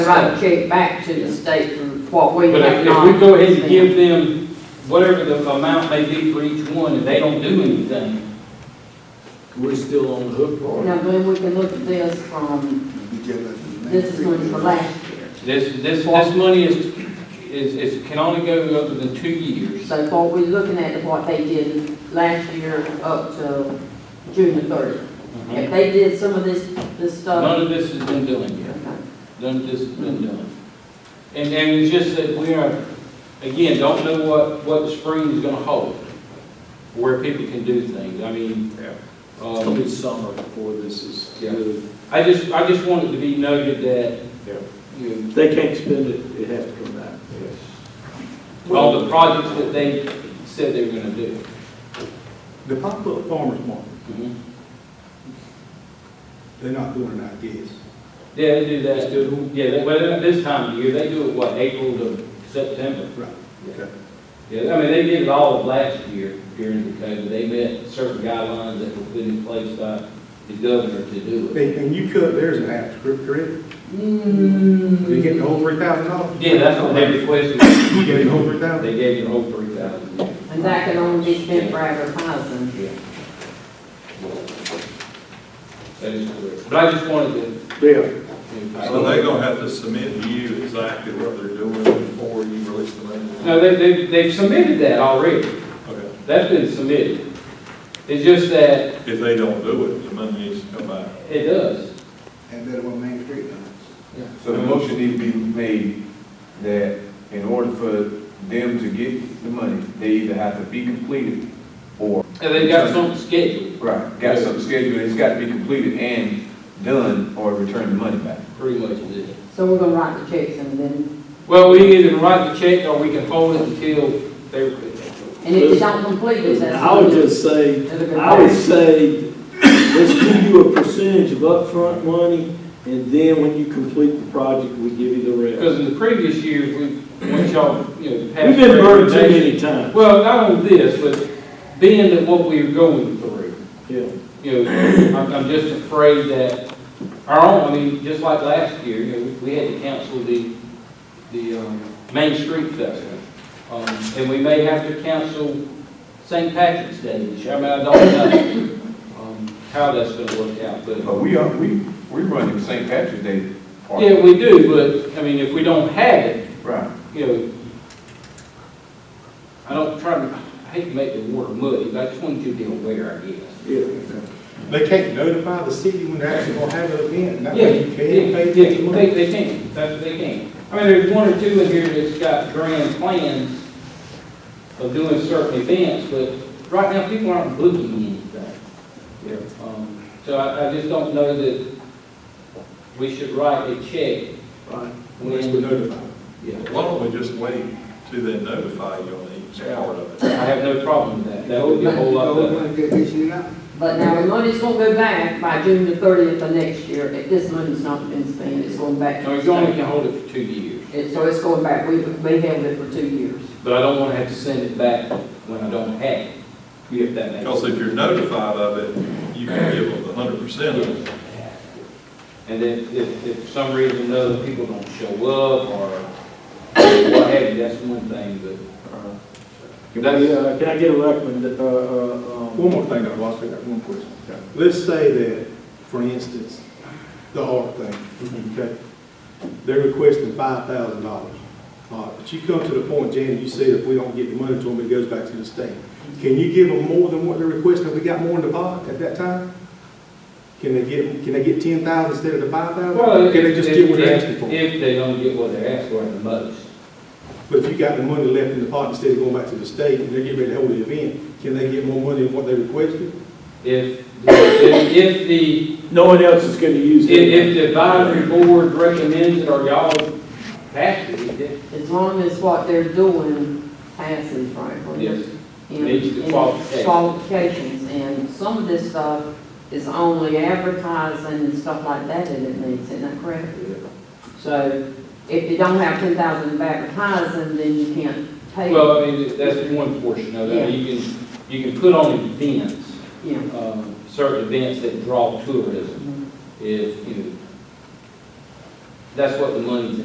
write a check back to the state for what we But have if, not. if we go ahead and spent. give them whatever the amount may be for each one, and they don't do anything, We're still on the hook for it. Now, then we can look at this from, this is one for last year. this, this, this money is, is, is, can only go other than two years. So what we're looking at is what they did last year up to June the thirtieth. Mhm. If they did some of this, this stuff. None of this has been done yet. okay. None of this has been done. And, and it's just that we are, again, don't know what, what the spring is gonna hold, where people can do things, I mean, It'll um, be summer before this is Yeah. good. I just, I just wanted to be noted that, Yeah. you know, They can't spend it, it has to come back. all the projects that they said they were gonna do. The pop-up farmer's market, Mhm. they're not doing it, I guess. Yeah, they do that, too. yeah, they- well, at this time of year, they do it, what, April to September? Right. Okay. Yeah, I mean, they did it all of last year during the COVID, they met certain guidelines that were put in place by the governor to do it. And, and you cut theirs in half, correct- correct? Hmm. You Yeah, Mm-hmm. getting over three thousand dollars? that's what they requested, You getting over three thousand? they gave you the whole three thousand. And that can only be spent for advertising. Yeah. That is correct, but I just wanted Yeah, So to. they're gonna have to submit to you exactly what they're doing before you release the money? No, they, they, they've submitted that already, Okay. that's been submitted. It's just that If they don't do it, the money needs to come back. it does. And that one Main Street now. So the motion needs to be made that in order for them to get the money, they either have to be completed or, And they've got something scheduled, right, got something scheduled, it's got to be completed and done or return the money back. pretty much is it. So we're gonna write the checks and then, Well, we either write the check or we can hold it until they're, and if you don't complete it, that's. I would just say, I would say, let's give you a percentage of upfront money, and then when you complete the project, we give you the rest. because in the previous years, we, once y'all, you know, passed. We've been burned too recommendations- many times, Well, not on this, but being that what we're going through, yeah. you know, I'm, I'm just afraid that our own, I mean, just like last year, you know, we- we had to cancel the, the, um, Main Street Festival. Um, and we may have to cancel St. Patrick's Day this year, I mean, I don't know, um, how that's gonna work out, but. But we are, we, we running St. Patrick's Day Yeah, party. we do, but, I mean, if we don't have it, Right. you know, I don't try to, I hate to make the water muddy, but I just want you to be aware, I guess. Yeah. They can't notify the city when they're actually gonna have an event, Yeah, not yeah, that you can pay yeah, this money. they, they can, that's, they can. I mean, there's one or two in here that's got grand plans of doing certain events, but right now, people aren't booking anything. Yeah. Um, So I, I just don't know that we should write a check Right. Unless we're when, notified. yeah. Why don't we just wait till they notify you on each part of I it? have no problem with that, that would be a whole lot better. But now, the money's gonna go back by June the thirtieth of next year, if this money's not been spent, it's going back. to No, the you only state. can hold it for two years, And so it's going back, we, we held it for two years. but I don't wanna have to send it back when I don't have it, if that makes Because sense. if you're notified of it, you can give them the hundred percent of it. And then if, if for some reason or another people don't show up or what have you, that's one thing, but. Uh-huh. Yeah, uh, Can I get a recommend, uh, uh, um, One more thing, I lost, I got one question. Let's say that, for instance, the art thing, okay? They're requesting five thousand dollars. Uh, but you come to the point, Janet, you said if we don't get the money to them, it goes back to the state. Can you give them more than what they're requesting? Have we got more in the pot at that time? Can they get, can they get ten thousand instead of the five thousand? Can they just get what they're asking for? If they don't get what they're asking for the most. But if you got the money left in the pot instead of going back to the state and they're getting ready to hold the event, can they get more money than what they requested? If, if, if the, no one else is gonna use if, it. if the advisory board recommends it or y'all pass it, it As long as what they're doing passes, Franklin. Yes. And- Meets the and qualifications. qualifications, and some of this stuff is only advertising and stuff like that that it needs, isn't that correct? So if you don't have ten thousand of advertising, then you can't pay, you Well, I mean, that's one portion of it. You can, you can put on events, know. um, certain events that draw tourism. If, you know, That's what the money's